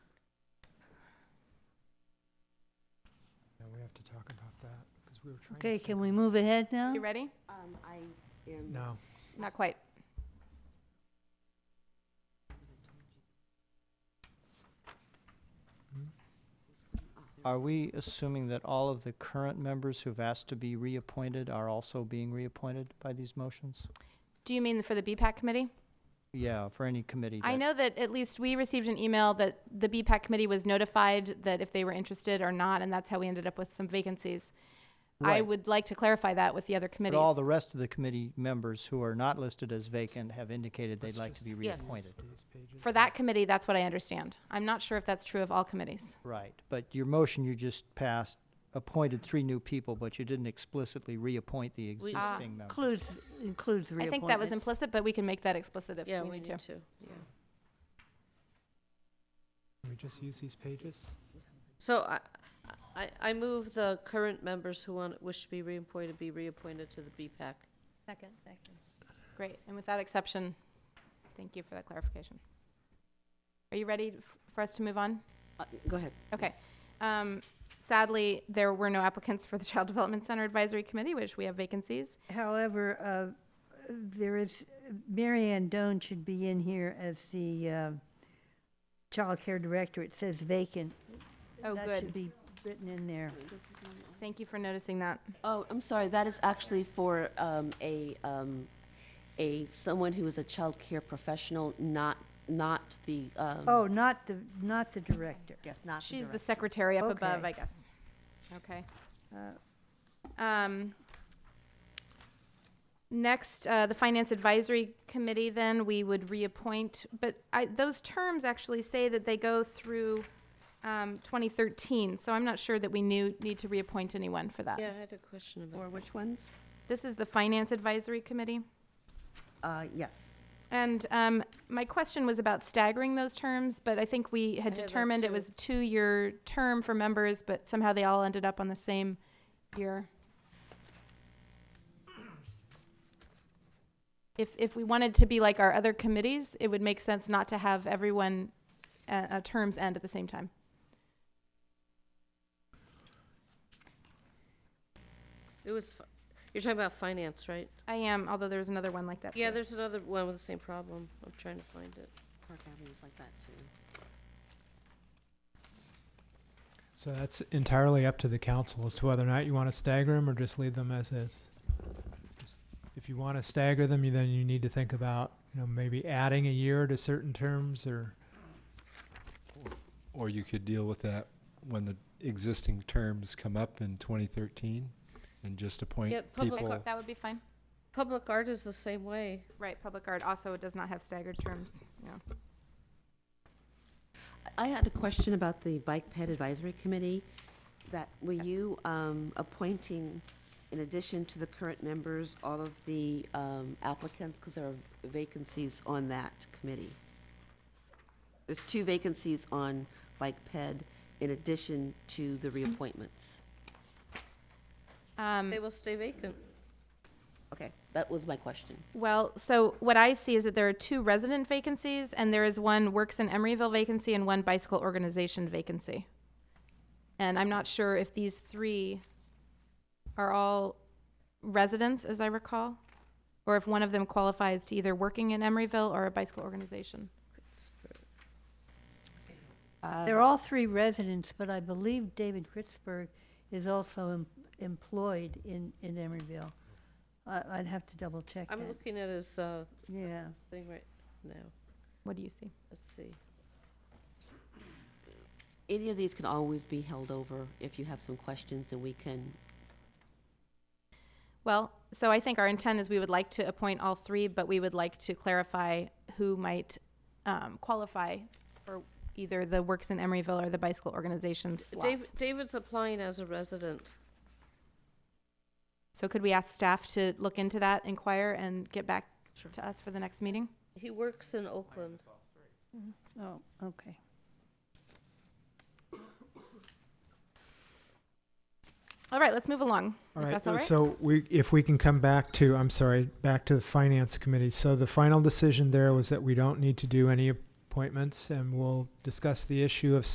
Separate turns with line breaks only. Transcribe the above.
talk about that, because we were trying to.
Okay,
see-
can we move ahead now?
You ready?
Um, I am.
No,
Not quite.
Are we assuming that all of the current members who've asked to be reappointed are also being reappointed by these motions?
Do you mean for the BPAC committee?
Yeah, for any committee.
I
that-
know that at least we received an email that the BPAC committee was notified that if they were interested or not, and that's how we ended up with some vacancies. I
Right.
would like to clarify that with the other
But all
committees.
the rest of the committee members who are not listed as vacant have indicated
Let's
they'd like
just-
to be
Yes.
reappointed.
these pages.
For that committee, that's what I understand. I'm not sure if that's true of all committees.
Right, but your motion you just passed appointed three new people, but you didn't explicitly reappoint the
We-
Ah.
existing members.
Includes, includes reappointments.
I think that was implicit, but we can make that explicit if we need to.
Yeah.
Can we just use these pages?
So I, I, I move the current members who want, wish to be reappointed, be reappointed to the BPAC.
Second. Great, and with that exception, thank you for that clarification. Are you ready f- for us to move on?
Uh, Go ahead.
Okay.
Yes.
Um, sadly, there were no applicants for the Child Development Center Advisory Committee, which we have vacancies.
However, uh, there is, Mary Ann Doan should be in here as the uh, child care director. It says vacant.
Oh,
That should
good.
be written in there.
Thank you for noticing that.
Oh, I'm sorry, that is actually for um, a, um, a, someone who is a child care professional, not, not the. um,
Oh, not the, not the director.
Yes, not the
She's the
director.
secretary up
Okay.
above, I guess. Okay.
Uh,
Um, next, uh, the Finance Advisory Committee, then, we would reappoint, but I, those terms actually say that they go through, um, twenty thirteen, so I'm not sure that we knew, need to reappoint anyone for that.
Yeah, I had a question about.
Or which ones?
This is the Finance Advisory Committee.
Uh, yes.
And um, my question was about staggering those terms, but I think we had
I had that
determined it
too.
was a two-year term for members, but somehow they all ended up on the same year. If, if we wanted to be like our other committees, it would make sense not to have everyone's uh, uh, terms end at the same time.
It was, fi- you're talking about finance, right?
I am, although there was another one like that.
Yeah,
too.
there's another one with the same problem. I'm trying to find it.
Park Avenue's like that, too.
So that's entirely up to the council as to whether or not you want to stagger them or just leave them as is. Just- If you want to stagger them, you then you need to think about, you know, maybe adding a year to certain terms or,
Or you could deal with that when the existing terms come up in 2013 and just appoint
Yeah, public
Public
people.
art- That would be fine.
Public art is the same way.
Right, public art also does not have staggered terms, yeah.
I had a question about the Bike Ped Advisory Committee, that, were
Yes.
you um, appointing, in addition to the current members, all of the um, applicants, because there are vacancies on that committee? There's two vacancies on Bike Ped in addition to the reappointments.
Um,
They
Mm.
will stay vacant.
Okay, that was my question.
Well, so what I see is that there are two resident vacancies, and there is one works in Emeryville vacancy and one bicycle organization vacancy. And I'm not sure if these three are all residents, as I recall, or if one of them qualifies to either working in Emeryville or a bicycle organization. Oh.
They're all three residents, but I believe David Kritzberg is also em- employed in, in Emeryville. I, I'd have to double check
I'm
that.
looking at his, uh,
Yeah.
thing right now.
What do you see?
Let's see.
Any of these can always be held over if you have some questions, then we can,
Well, so I think our intent is we would like to appoint all three, but we would like to clarify who might um, qualify for either the Works in Emeryville or the Bicycle Organization slot.
Dave, David's applying as a resident.
So could we ask staff to look into that, inquire, and get back to us for the next meeting?
He works in Oakland.
Oh, okay.
All right, let's move along.
all
If
right.
that's all right?
So we, if we can come back to, I'm sorry, back to the finance committee. So the final decision there was that we don't need to do any appointments and we'll discuss the issue of